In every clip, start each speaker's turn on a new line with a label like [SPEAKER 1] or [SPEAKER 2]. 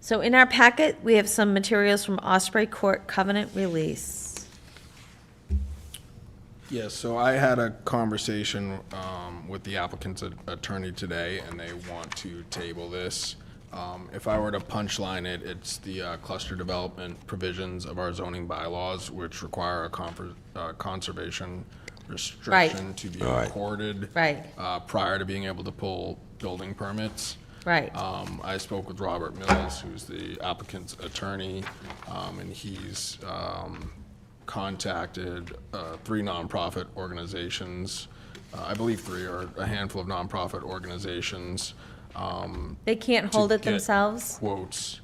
[SPEAKER 1] So in our packet, we have some materials from Osprey Court covenant release.
[SPEAKER 2] Yes, so I had a conversation um, with the applicant's a- attorney today, and they want to table this. Um, If I were to punchline it, it's the uh, cluster development provisions of our zoning bylaws, which require a confer- uh, conservation restriction to be
[SPEAKER 3] Right.
[SPEAKER 2] recorded
[SPEAKER 1] Right,
[SPEAKER 2] uh, prior to being able to pull building permits.
[SPEAKER 1] right.
[SPEAKER 2] Um, I spoke with Robert Mills, who's the applicant's attorney, um, and he's, um, contacted, uh, three nonprofit organizations. Uh, I believe three or a handful of nonprofit organizations, um,
[SPEAKER 1] They can't
[SPEAKER 2] to
[SPEAKER 1] hold it
[SPEAKER 2] get
[SPEAKER 1] themselves?
[SPEAKER 2] Quotes.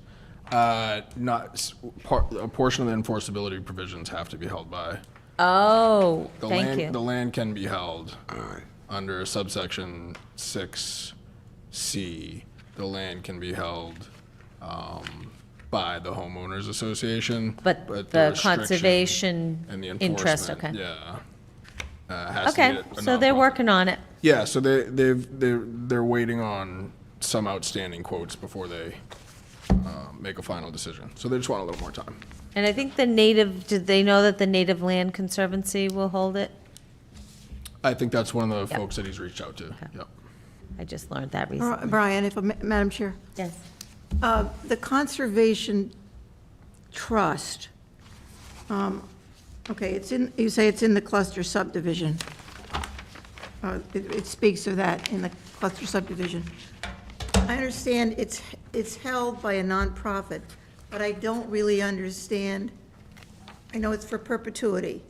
[SPEAKER 2] Uh, not, s- par, a portion of the enforceability provisions have to be held by.
[SPEAKER 1] Oh,
[SPEAKER 2] The
[SPEAKER 1] thank
[SPEAKER 2] land- The
[SPEAKER 1] you.
[SPEAKER 2] land can be held
[SPEAKER 3] All right.
[SPEAKER 2] under subsection six C, the land can be held um, by the homeowners association.
[SPEAKER 1] But the
[SPEAKER 2] restriction
[SPEAKER 1] conservation
[SPEAKER 2] and the
[SPEAKER 1] interest, okay.
[SPEAKER 2] enforcement, Yeah. uh, has to be
[SPEAKER 1] Okay,
[SPEAKER 2] a- a
[SPEAKER 1] so they're
[SPEAKER 2] nonprofit.
[SPEAKER 1] working on it.
[SPEAKER 2] Yeah, so they, they've, they're, they're waiting on some outstanding quotes before they uh, make a final decision. So they just want a little more time.
[SPEAKER 1] And I think the native, did they know that the Native Land Conservancy will hold it?
[SPEAKER 2] I think that's one of the
[SPEAKER 1] Yep.
[SPEAKER 2] folks that he's reached out to. Yep.
[SPEAKER 1] I just learned that
[SPEAKER 4] Bri-
[SPEAKER 1] recently.
[SPEAKER 4] Brian, if, I ma- Madam Chair,
[SPEAKER 1] Yes.
[SPEAKER 4] uh, the Conservation Trust, um, okay, it's in, you say it's in the cluster subdivision. Uh, It it speaks of that in the cluster subdivision. I understand it's, it's held by a nonprofit, but I don't really understand, I know it's for perpetuity,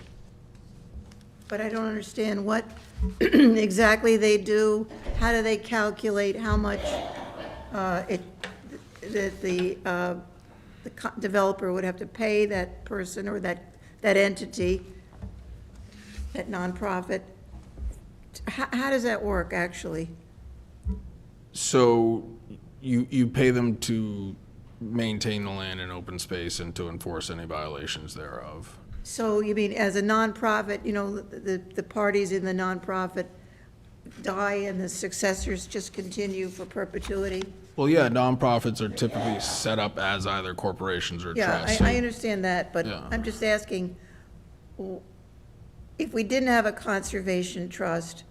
[SPEAKER 4] but I don't understand what exactly they do, how do they calculate how much uh, it, that the, uh, the co- developer would have to pay that person or that, that entity, that nonprofit. How, how does that work, actually?
[SPEAKER 2] So you, you pay them to maintain the land and open space and to enforce any violations thereof?
[SPEAKER 4] So you mean, as a nonprofit, you know, the, the- the parties in the nonprofit die and the successors just continue for perpetuity?
[SPEAKER 2] Well, yeah, nonprofits are typically set up as either corporations or
[SPEAKER 4] Yeah,
[SPEAKER 2] trusts.
[SPEAKER 4] I, I understand that, but
[SPEAKER 2] Yeah.
[SPEAKER 4] I'm just asking, w- if we didn't have a conservation trust,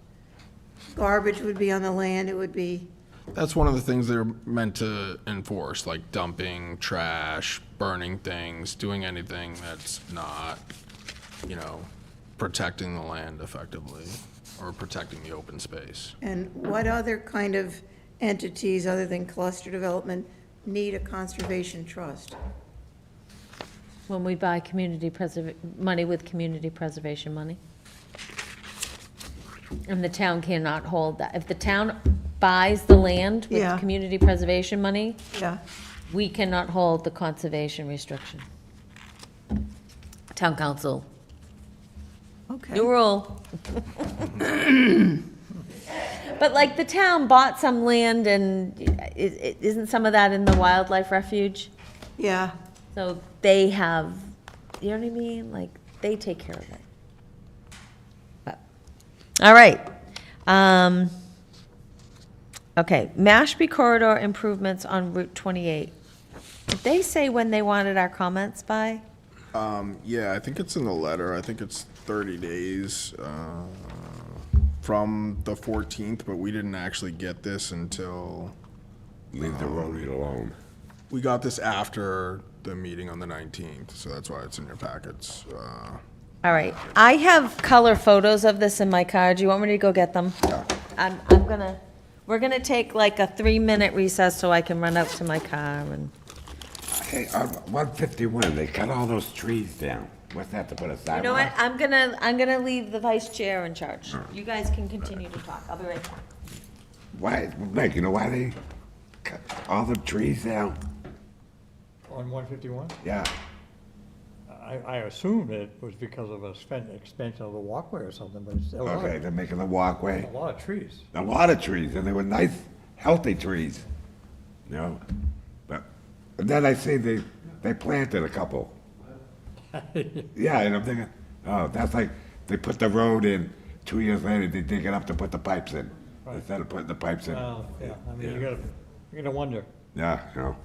[SPEAKER 4] garbage would be on the land, it would be,
[SPEAKER 2] That's one of the things they're meant to enforce, like dumping, trash, burning things, doing anything that's not, you know, protecting the land effectively or protecting the open space.
[SPEAKER 4] and what other kind of entities, other than cluster development, need a conservation trust?
[SPEAKER 1] When we buy community preserv, money with community preservation money. And the town cannot hold that. If the town buys the land with
[SPEAKER 4] Yeah.
[SPEAKER 1] community preservation money,
[SPEAKER 4] Yeah.
[SPEAKER 1] we cannot hold the conservation restriction. Town council,
[SPEAKER 4] Okay,
[SPEAKER 1] new rule. But like the town bought some land and i- i- isn't some of that in the wildlife refuge?
[SPEAKER 4] yeah,
[SPEAKER 1] So they have, you know what I mean? Like, they take care of it. But, all right. Um, okay, Mashpee corridor improvements on Route 28. Did they say when they wanted our comments by?
[SPEAKER 2] Yeah, I think it's in the letter. I think it's 30 days uh, from the 14th, but we didn't actually get this until,
[SPEAKER 3] Leave the roadie alone.
[SPEAKER 2] we got this after the meeting on the 19th, so that's why it's in your packets. Uh,
[SPEAKER 1] All right, I have color photos of this in my car. Do you want me to go get them? I'm, I'm gonna, we're gonna take like a three-minute recess so I can run up to my car and.
[SPEAKER 3] Hey, on 151, they cut all those trees down. What's that, to put a sidewalk?
[SPEAKER 1] You know what, I'm gonna, I'm gonna leave the vice chair in charge. You guys can continue to talk, I'll be right back.
[SPEAKER 3] Why, Mike, you know why they cut all the trees down?
[SPEAKER 5] On one fifty-one?
[SPEAKER 3] Yeah.
[SPEAKER 5] I, I assumed it was because of a spent, expansion of the walkway or something, but it's a lot,
[SPEAKER 3] Okay,
[SPEAKER 5] a
[SPEAKER 3] they're making a walkway.
[SPEAKER 5] lot of trees.
[SPEAKER 3] A lot of trees, and they were nice, healthy trees. You know? But, and then I see they, they planted a couple. Yeah, and I'm thinking, oh, that's like, they put the road in, two years later, they dig it up to put the pipes in, instead of putting the pipes in.
[SPEAKER 5] Uh, yeah, I mean, you
[SPEAKER 3] Yeah.
[SPEAKER 5] gotta, you gotta wonder.
[SPEAKER 3] Yeah, you know,